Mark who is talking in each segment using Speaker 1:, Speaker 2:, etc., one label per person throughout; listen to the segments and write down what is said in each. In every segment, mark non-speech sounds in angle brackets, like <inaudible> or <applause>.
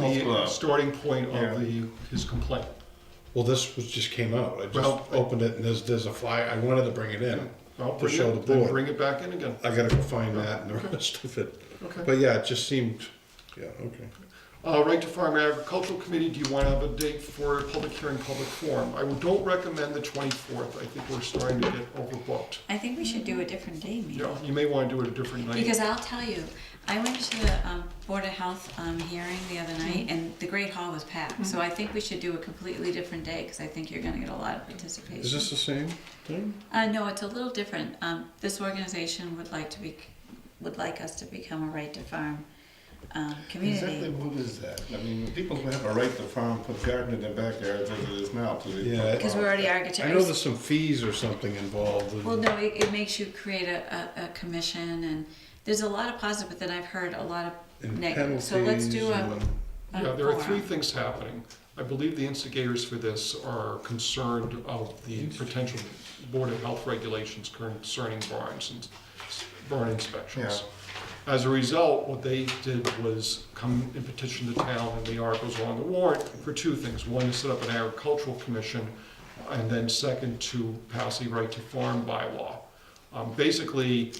Speaker 1: Golf
Speaker 2: the
Speaker 1: club.
Speaker 2: starting point
Speaker 1: Yeah.
Speaker 2: of the, his complaint.
Speaker 3: Well, this was, just came out. I
Speaker 2: Well-
Speaker 3: just opened it and there's, there's a fly. I wanted to bring it in.
Speaker 2: I'll
Speaker 3: To
Speaker 2: bring
Speaker 3: show
Speaker 2: it,
Speaker 3: the
Speaker 2: then
Speaker 3: board.
Speaker 2: bring it back in again.
Speaker 3: I gotta go find that and the <laughs> rest of it.
Speaker 2: Okay.
Speaker 3: But yeah, it just seemed, yeah, okay.
Speaker 2: Uh, Right to Farm Agricultural Committee, do you want to have a date for a public hearing, public forum? I don't recommend the 24th, I think we're starting to get overbooked.
Speaker 4: I think we should do a different day, maybe.
Speaker 2: You know, you may want to do it a different night.
Speaker 4: Because I'll tell you, I went to the um, Board of Health um, hearing the other night,
Speaker 2: Mm-hmm.
Speaker 4: and the Great Hall was packed. So I think we should do a completely different day, because I think you're going to get a lot of participation.
Speaker 3: Is this the same thing?
Speaker 4: Uh, no, it's a little different. Um, this organization would like to be, would like us to become a right to farm um,
Speaker 1: Exactly
Speaker 4: community.
Speaker 1: what is that? I mean, people who have a right to farm, put garden in their backyards as it is now. till they-
Speaker 3: Yeah.
Speaker 4: Because we're already
Speaker 3: I know
Speaker 4: architects.
Speaker 3: there's some fees or something involved.
Speaker 4: Well, no, it, it makes you create a, a, a commission, and there's a lot of positive, but then I've heard a lot of
Speaker 3: And
Speaker 4: negative. So let's
Speaker 3: penalties
Speaker 4: do a,
Speaker 3: and
Speaker 4: a
Speaker 2: Yeah, there are
Speaker 4: forum.
Speaker 2: three things happening. I believe the instigators for this are concerned of the potential Board of Health regulations concerning barns and s- barn inspections. As a result, what they did was come and petition the town, and the articles are on the warrant for two things. One, to set up an agricultural commission, and then second, to pass the right to farm bylaw. Um, Basically,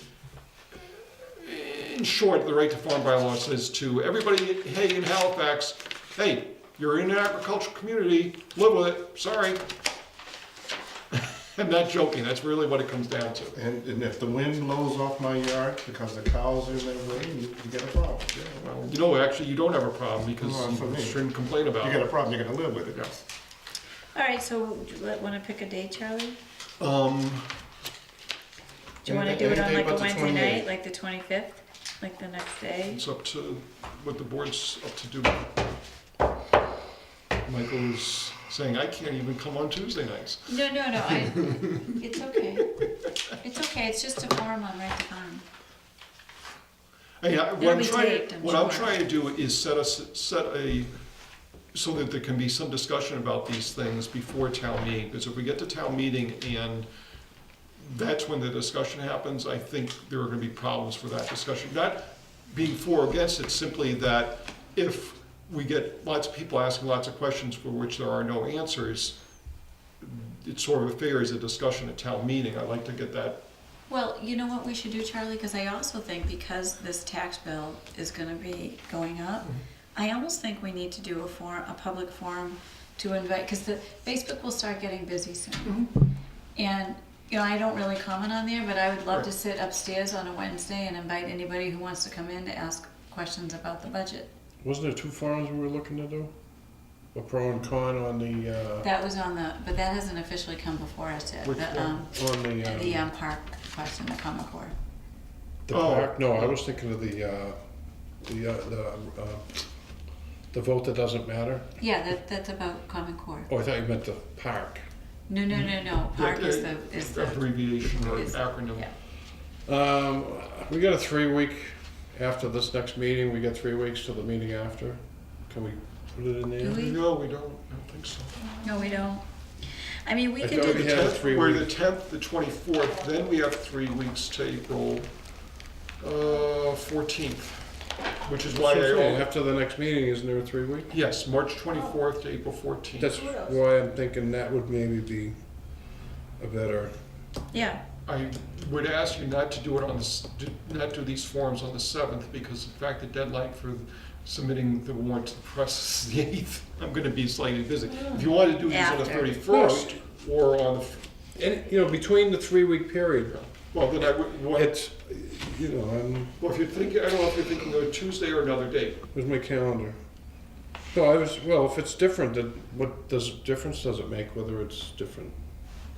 Speaker 2: in short, the right to farm bylaw says to everybody, hey, in Halifax, hey, you're in an agricultural community, live with it, sorry. <laughs> I'm not joking, that's really what it comes down to.
Speaker 1: And, and if the wind blows off my yard because the cows are in their way, you, you get a problem. Yeah, well,
Speaker 2: You know, actually, you don't have a problem because
Speaker 1: Well, for
Speaker 2: you
Speaker 1: me.
Speaker 2: shouldn't complain about
Speaker 1: You got a
Speaker 2: it.
Speaker 1: problem, you're gonna live with it.
Speaker 4: All right, so do you want to pick a day, Charlie?
Speaker 2: Um,
Speaker 4: Do you want to
Speaker 1: Any-
Speaker 4: do it
Speaker 1: any
Speaker 4: on
Speaker 1: day
Speaker 4: like a
Speaker 1: but the
Speaker 4: Wednesday
Speaker 1: 28th.
Speaker 4: night, like the 25th, like the next day?
Speaker 2: it's up to what the board's up to do. Michael's saying, I can't even come on Tuesday nights.
Speaker 4: No, no, no,
Speaker 1: <laughs>
Speaker 4: I, it's okay. It's okay, it's just a form on right to farm.
Speaker 2: Hey, I- what
Speaker 4: It'll
Speaker 2: I'm
Speaker 4: be
Speaker 2: trying,
Speaker 4: taped, I'm
Speaker 2: what I'm
Speaker 4: sure.
Speaker 2: trying to do is set us, set a, so that there can be some discussion about these things before town meeting, because if we get to town meeting and that's when the discussion happens, I think there are gonna be problems for that discussion. Not being for or against, it's simply that if we get lots of people asking lots of questions for which there are no answers, it sort of favors a discussion at town meeting, I like to get that,
Speaker 4: Well, you know what we should do, Charlie, because I also think because this tax bill is gonna be going up,
Speaker 2: Mm-hmm.
Speaker 4: I almost think we need to do a forum, a public forum to invite, because the, Facebook will start getting busy soon.
Speaker 2: Mm-hmm.
Speaker 4: And, you know, I don't really comment on there, but I would love to
Speaker 2: Right.
Speaker 4: sit upstairs on a Wednesday and invite anybody who wants to come in to ask questions about the budget.
Speaker 3: Wasn't there two farms we were looking to do? A pro and con on the, uh,
Speaker 4: That was on the, but that hasn't officially come before us yet,
Speaker 2: Which
Speaker 4: the, um,
Speaker 3: on the,
Speaker 4: the,
Speaker 3: um,
Speaker 4: um, park question, the Common Core.
Speaker 3: the
Speaker 2: Oh.
Speaker 3: park? No, I was thinking of the, uh, the, uh, the, uh, the vote that doesn't matter.
Speaker 4: Yeah, that, that's about Common Core.
Speaker 3: Oh, I thought you meant the park.
Speaker 4: No, no, no, no, park is the, is the,
Speaker 2: abbreviation or
Speaker 4: is-
Speaker 2: acronym.
Speaker 4: yeah.
Speaker 3: Um, we got a three week, after this next meeting, we got three weeks till the meeting after. Can we put it in
Speaker 4: Do
Speaker 3: there?
Speaker 4: we?
Speaker 2: No, we don't, I don't think so.
Speaker 4: No, we don't. I mean, we
Speaker 3: I
Speaker 4: could
Speaker 3: thought
Speaker 4: do,
Speaker 3: we
Speaker 2: The
Speaker 3: had a
Speaker 2: 10th,
Speaker 3: three
Speaker 2: We're
Speaker 3: week-
Speaker 2: the tenth, the twenty-fourth, then we have three weeks to April, uh, fourteenth, which is why
Speaker 3: That's right,
Speaker 2: I,
Speaker 3: After the next meeting, isn't there a three week?
Speaker 2: yes, March twenty-fourth to April fourteenth.
Speaker 3: That's why I'm thinking that would maybe be a better,
Speaker 4: yeah,
Speaker 2: I would ask you not to do it on the, s- do- not do these forms on the seventh, because in fact, the deadline for submitting the warrant to the press is the eighth. I'm gonna be slightly busy. If you want to do these on the
Speaker 4: After.
Speaker 2: thirty-first, or on the, f-
Speaker 3: and, you know, between the three week period,
Speaker 2: well, then I would, well,
Speaker 3: it's, you know, I'm,
Speaker 2: if you're thinking, I don't know if you're thinking of a Tuesday or another date.
Speaker 3: where's my calendar? No, I was, well, if it's different, then what does, difference does it make whether it's different?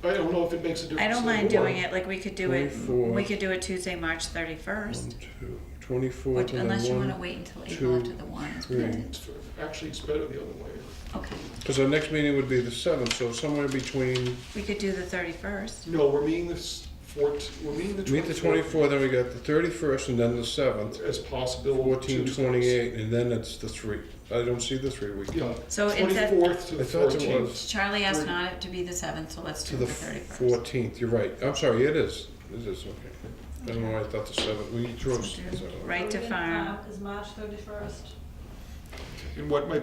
Speaker 2: I don't know if it makes a difference.
Speaker 4: I don't
Speaker 2: to the
Speaker 4: mind
Speaker 2: board.
Speaker 4: doing it, like, we could do it, we
Speaker 3: 24th.
Speaker 4: could do it Tuesday, March
Speaker 3: One,
Speaker 4: thirty-first.
Speaker 3: two, twenty-fourth and
Speaker 4: Unless you
Speaker 3: then
Speaker 4: wanna
Speaker 3: one,
Speaker 4: wait until
Speaker 3: two,
Speaker 4: April after the warrant is
Speaker 3: three.
Speaker 4: printed.
Speaker 2: It's fair. Actually, it's better the other way.
Speaker 4: Okay,
Speaker 3: because our next meeting would be the seventh, so somewhere between,
Speaker 4: we could do the thirty-first.
Speaker 2: No, we're meeting this fourteen, we're meeting the
Speaker 3: meet the
Speaker 2: twenty-fourth
Speaker 3: twenty-fourth, then we got the thirty-first and then the seventh,
Speaker 2: as possible.
Speaker 3: fourteen,
Speaker 2: Tuesdays.
Speaker 3: twenty-eight, and then it's the three. I don't see the three week.
Speaker 2: Yeah,
Speaker 4: So instead,
Speaker 2: twenty-fourth to
Speaker 3: I
Speaker 2: the
Speaker 3: thought it
Speaker 2: fourteenth.
Speaker 3: was
Speaker 4: Charlie asked
Speaker 2: Thirty.
Speaker 4: not it to be the seventh, so let's
Speaker 3: to
Speaker 4: do
Speaker 3: the
Speaker 4: the thirty-first.
Speaker 3: fourteenth, you're right. I'm sorry, it is, it is, okay. I don't know why I thought the seventh, we drove.
Speaker 4: Right to
Speaker 5: Are we gonna
Speaker 4: farm.
Speaker 5: count As March thirty-first.
Speaker 2: And what my